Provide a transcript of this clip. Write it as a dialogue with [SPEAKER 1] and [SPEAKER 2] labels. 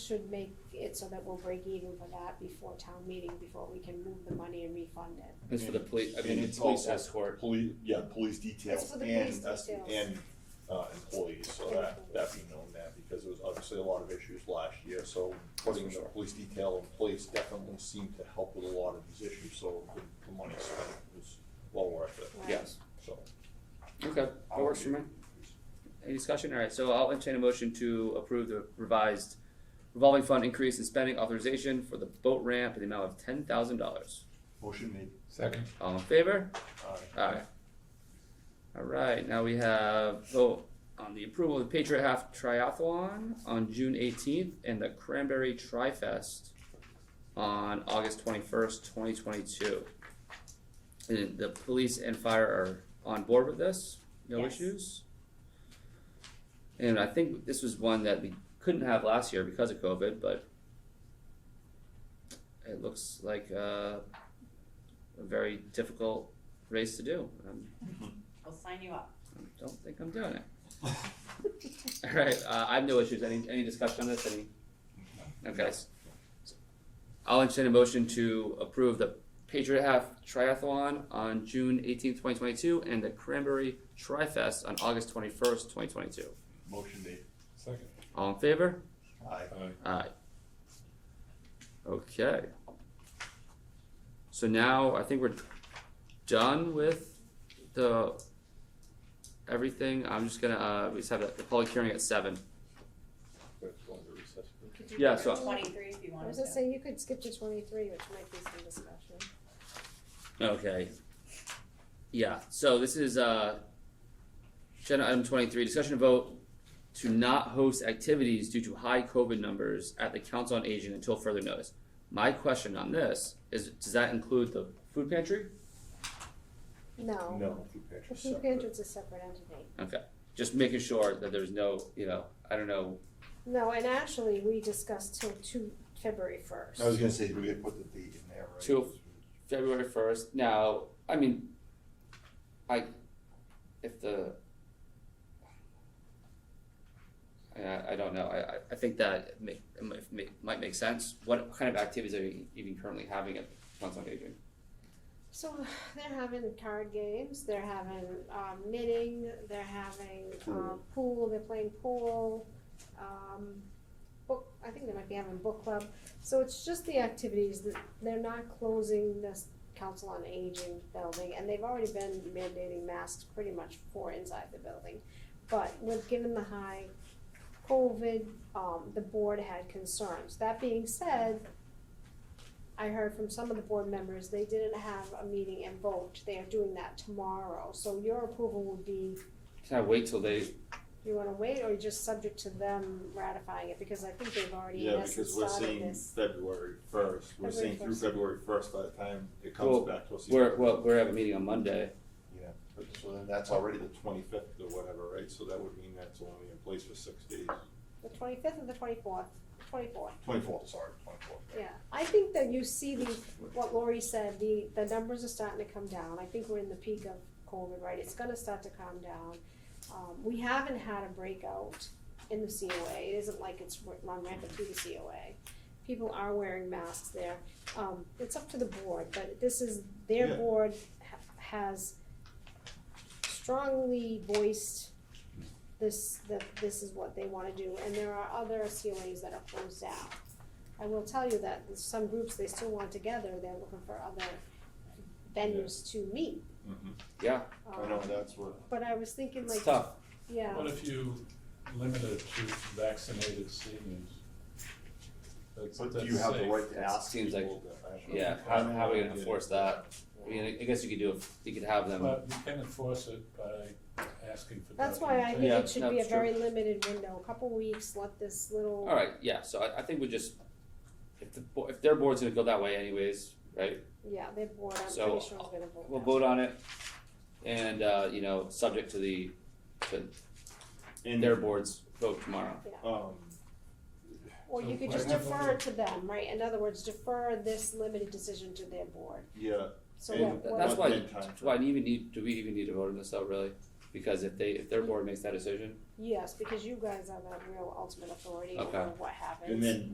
[SPEAKER 1] should make it so that we'll break even for that before town meeting, before we can move the money and refund it.
[SPEAKER 2] It's for the police, I
[SPEAKER 3] And
[SPEAKER 2] mean,
[SPEAKER 3] it's
[SPEAKER 2] the police
[SPEAKER 3] also-
[SPEAKER 2] escort.
[SPEAKER 3] Police, yeah, police details
[SPEAKER 1] It's for the police
[SPEAKER 3] and, us-
[SPEAKER 1] details.
[SPEAKER 3] and, uh, employees, so that, that be known that, because there was obviously a lot of issues last year, so putting the police detail in place definitely seemed to help with a lot of these issues, so the, the money spent was well worth it,
[SPEAKER 1] right?
[SPEAKER 2] Yes.
[SPEAKER 3] so.
[SPEAKER 2] Okay, that works for me. Any discussion? All right, so I'll entertain a motion to approve the revised revolving fund increase in spending authorization for the boat ramp in the amount of ten thousand dollars.
[SPEAKER 3] Motion made,
[SPEAKER 4] Second.
[SPEAKER 2] All in favor?
[SPEAKER 3] aye.
[SPEAKER 2] Alright. Alright, now we have vote on the approval of the Patriot Half Triathlon on June eighteenth and the Cranberry Tri Fest on August twenty-first, twenty twenty-two. And the police and fire are on board with this, no
[SPEAKER 1] Yes.
[SPEAKER 2] issues? And I think this was one that we couldn't have last year because of COVID, but it looks like uh, a very difficult race to do. Um,
[SPEAKER 5] I'll sign you up.
[SPEAKER 2] I don't think I'm doing it. All right, uh, I have no issues. Any any discussion on this? Any? Okay. s- I'll entertain a motion to approve the Patriot Half Triathlon on June eighteenth, twenty twenty-two, and the Cranberry Tri-Fest on August twenty-first, twenty twenty-two.
[SPEAKER 3] Motion made,
[SPEAKER 4] Second.
[SPEAKER 2] All in favor?
[SPEAKER 3] aye.
[SPEAKER 4] Aye.
[SPEAKER 2] Aye. Okay. So now I think we're done with the everything. I'm just gonna uh we just have the public hearing at seven.
[SPEAKER 3] We're going to recess.
[SPEAKER 5] Could do
[SPEAKER 2] Yeah,
[SPEAKER 5] number
[SPEAKER 2] so-
[SPEAKER 5] Twenty-three if you
[SPEAKER 1] I
[SPEAKER 5] wanted
[SPEAKER 1] was gonna
[SPEAKER 5] to.
[SPEAKER 1] say, you could skip to twenty-three, which might be some discussion.
[SPEAKER 2] Okay. Yeah, so this is uh agenda item twenty-three, discussion and vote to not host activities due to high COVID numbers at the Council on Aging until further notice. My question on this is, does that include the food pantry?
[SPEAKER 1] No,
[SPEAKER 3] No, food
[SPEAKER 1] the
[SPEAKER 3] pantry's
[SPEAKER 1] food
[SPEAKER 3] separate.
[SPEAKER 1] pantry's a separate entity.
[SPEAKER 2] Just making sure that there's no, you know, I don't know,
[SPEAKER 1] No, and actually, we discussed till two, February first.
[SPEAKER 3] I was gonna say, do we had put the date in there, right?
[SPEAKER 2] Two. February first. Now, I mean, I, if the, I, I don't know. I, I- I think that make, it might- it might- might make sense. What kind of activities are you even currently having at Council on Aging?
[SPEAKER 1] So they're having card games, they're having um, knitting, they're having um, pool, they're playing pool. Um, book, I think they might be having book club. So it's just the activities that they're not closing this council on aging building, and they've already been mandating masks pretty much for inside the building. But with given the high COVID, um, the board had concerns. That being said, I heard from some of the board members, they didn't have a meeting and vote, they are doing that tomorrow, so your approval would be,
[SPEAKER 2] Can I wait till they,
[SPEAKER 1] you wanna wait, or just subject to them ratifying it, because I think they've already in
[SPEAKER 3] Yeah,
[SPEAKER 1] essence
[SPEAKER 3] because we're
[SPEAKER 1] started
[SPEAKER 3] saying
[SPEAKER 1] this.
[SPEAKER 3] February first, we're
[SPEAKER 1] February
[SPEAKER 3] saying through
[SPEAKER 1] 1st.
[SPEAKER 3] February first by the time it
[SPEAKER 2] Well,
[SPEAKER 3] comes back to us.
[SPEAKER 2] we're, well, we're having a meeting on Monday.
[SPEAKER 3] Yeah, but so then that's already the twenty-fifth or whatever, right? So that would mean that's only in place for six days.
[SPEAKER 1] The twenty-fifth and the twenty-fourth, twenty-fourth,
[SPEAKER 3] Twenty-fourth, sorry, twenty-fourth.
[SPEAKER 1] yeah, I think that you see the, what Lori said, the, the numbers are starting to come down, I think we're in the peak of COVID, right, it's gonna start to calm down. Um, we haven't had a breakout in the COA, it isn't like it's r- run rampant through the COA. People are wearing masks there, um, it's up to the board, but this is, their
[SPEAKER 3] Yeah.
[SPEAKER 1] board ha- has strongly voiced this, that this is what they wanna do, and there are other COAs that are closed down. I will tell you that some groups, they still want together, they're looking for other venues to meet.
[SPEAKER 2] Yeah,
[SPEAKER 3] I know,
[SPEAKER 1] Um,
[SPEAKER 3] that's what,
[SPEAKER 1] But I was thinking
[SPEAKER 2] it's
[SPEAKER 1] like,
[SPEAKER 2] tough.
[SPEAKER 1] yeah,
[SPEAKER 6] What if you limit it to vaccinated seniors? That's,
[SPEAKER 3] but
[SPEAKER 6] that's
[SPEAKER 3] do you have the
[SPEAKER 6] safe.
[SPEAKER 3] right to
[SPEAKER 2] That
[SPEAKER 3] ask
[SPEAKER 2] seems like-
[SPEAKER 3] people that- I-
[SPEAKER 2] Yeah,
[SPEAKER 3] I
[SPEAKER 2] how,
[SPEAKER 3] don't
[SPEAKER 2] how are we
[SPEAKER 3] know.
[SPEAKER 2] gonna enforce that? I mean, I guess you could do, a- you could have them,
[SPEAKER 6] But you can enforce it by asking for documentation.
[SPEAKER 1] that's why I think
[SPEAKER 2] Yeah,
[SPEAKER 1] it should be a
[SPEAKER 2] that's true.
[SPEAKER 1] very limited window, a couple weeks, let this little.
[SPEAKER 2] alright, yeah, so I, I think we just, if the, bo- if their board's gonna go that way anyways, right?
[SPEAKER 1] Yeah, they're bored, I'm pretty
[SPEAKER 2] So,
[SPEAKER 1] sure is gonna vote.
[SPEAKER 2] We'll
[SPEAKER 1] that.
[SPEAKER 2] vote on it, and, uh, you know, subject to the, to
[SPEAKER 3] And,
[SPEAKER 2] their board's vote tomorrow.
[SPEAKER 3] um,
[SPEAKER 1] Or you could just
[SPEAKER 6] Whatever.
[SPEAKER 1] defer it to them, right, in other words, defer this limited decision to their board,
[SPEAKER 3] yeah,
[SPEAKER 1] so
[SPEAKER 3] And
[SPEAKER 1] what,
[SPEAKER 2] Th-
[SPEAKER 1] what-
[SPEAKER 2] That's why,
[SPEAKER 3] Not that time.
[SPEAKER 2] that's why I even need, do we even need to vote on this though, really? Because if they, if their board makes that decision,
[SPEAKER 1] yes, because you guys are the real ultimate authority
[SPEAKER 2] Okay.
[SPEAKER 1] over what happens.
[SPEAKER 3] and then